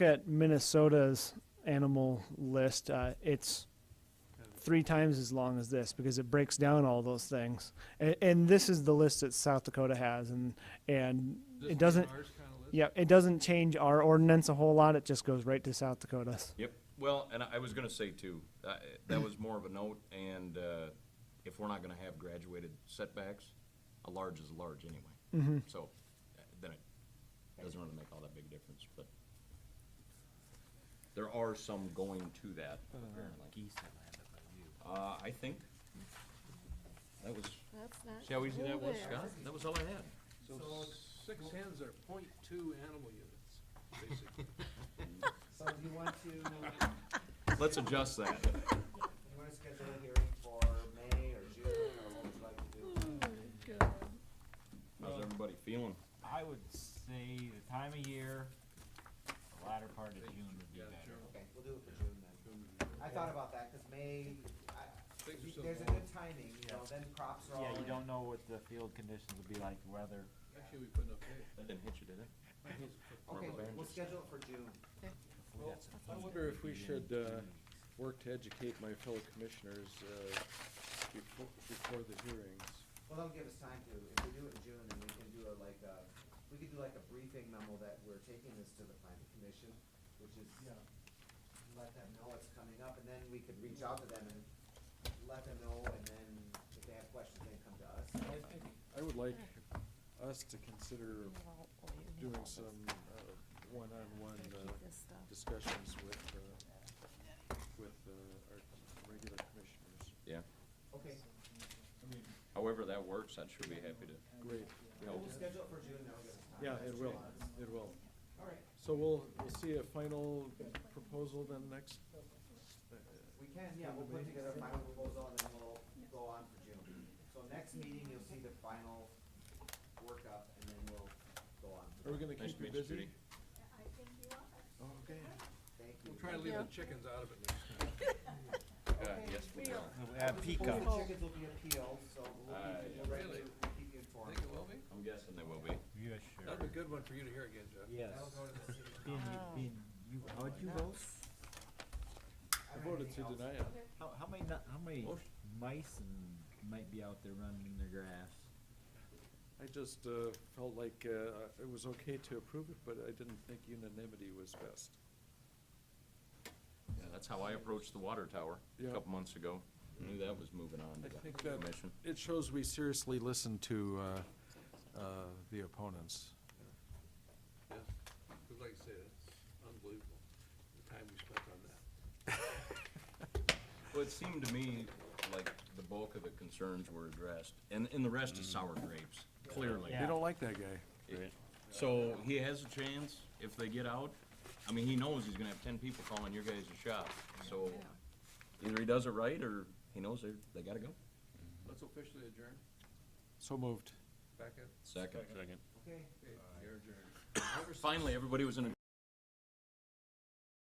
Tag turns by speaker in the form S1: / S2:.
S1: at Minnesota's animal list, uh, it's three times as long as this because it breaks down all those things. And, and this is the list that South Dakota has, and and it doesn't. Yeah, it doesn't change our ordinance a whole lot. It just goes right to South Dakota's.
S2: Yep, well, and I I was gonna say too, uh, that was more of a note, and uh, if we're not gonna have graduated setbacks, a large is a large anyway. So, uh, then it doesn't really make all that big difference, but there are some going to that, apparently. Uh, I think, that was,
S3: That's not.
S2: see how easy that was,
S3: there.
S2: Scott? That was all I had.
S4: So six hens are point two animal units, basically.
S5: So do you want to, you want
S2: Let's adjust that.
S5: to schedule a hearing for May or June, or what would you like to do?
S2: How's everybody feeling?
S6: I would say the time of year, the latter part of June would be better.
S5: Okay, we'll do it for June then. I thought about that, because May, I,
S4: Things are so
S5: there's a
S4: long.
S5: good timing, you know, then crops are all
S6: Yeah,
S5: in.
S6: you don't know what the field conditions will be like, weather.
S4: Actually, we put up hay.
S2: That didn't hit you, did it?
S5: Okay,
S2: Rubber band
S5: we'll
S2: is-
S5: schedule it for June.
S6: We got some
S7: I
S6: heat
S7: wonder if we
S6: in
S7: should,
S6: June.
S7: uh, work to educate my fellow commissioners, uh, before, before the hearings.
S5: Well, that'll give us time to, if we do it in June, then we can do a, like, uh, we could do like a briefing memo that we're taking this to the planning commission, which is, let them know it's coming up, and then we could reach out to them and let them know, and then if they have questions, they can come to us.
S7: I think, I would like us to consider doing some, uh, one-on-one, uh, discussions with, uh, with, uh, our regular commissioners.
S2: Yeah,
S5: Okay,
S2: however that works, I'd sure be happy to
S7: Great,
S2: help.
S5: we'll schedule it for June, that'll give us time.
S7: yeah, it will, it will.
S5: All right,
S7: So we'll, we'll see a final proposal then next,
S5: we can, yeah, we'll put together a final proposal, and then we'll go on for June. So next meeting, you'll see the final workup, and then we'll go on.
S7: are we gonna
S2: Nice
S7: keep
S2: to meet you,
S7: you busy? Oh,
S2: Judy.
S7: Okay.
S5: Thank you.
S4: We'll try to leave the chickens out of it next time.
S2: Uh, yes, we will.
S6: We have
S5: Hopefully
S6: peacocks.
S5: chickens will be appealed, so we'll
S2: Uh,
S5: keep you, we'll
S4: really?
S5: keep you- we'll keep you informed.
S4: Think it will be?
S2: I'm guessing they will be.
S6: Yeah, sure.
S4: That'd be a good one for you to hear again, Jeff.
S6: Yes.
S5: That'll go to the city.
S6: Being, being, you, how'd you vote?
S5: I
S7: I
S5: don't have
S7: voted to
S5: anything else.
S7: deny it.
S6: How, how many, nu- how many
S2: Motion.
S6: mice and might be out there running their grass?
S7: I just uh, felt like uh, it was okay to approve it, but I didn't think unanimity was best.
S2: Yeah, that's how I approached the water tower a
S7: Yeah.
S2: couple months ago. Knew that was moving on to
S7: I
S2: the
S7: think that-
S2: commission.
S7: It shows we seriously listened to uh, uh, the opponents.
S4: Yeah. 'Cause like I said, it's unbelievable, the time we spent on that.
S2: Well, it seemed to me like the bulk of the concerns were addressed, and, and the rest is sour grapes, clearly.
S7: They don't like that guy.
S2: It- So he has a chance if they get out. I mean, he knows he's gonna have ten people calling your guys' shop, so either he does it right or he knows they, they gotta go.
S4: Let's officially adjourn,
S7: So moved.
S4: back in,
S2: Second.
S5: Okay.
S4: Okay, you're adjourned.
S2: Finally, everybody was in a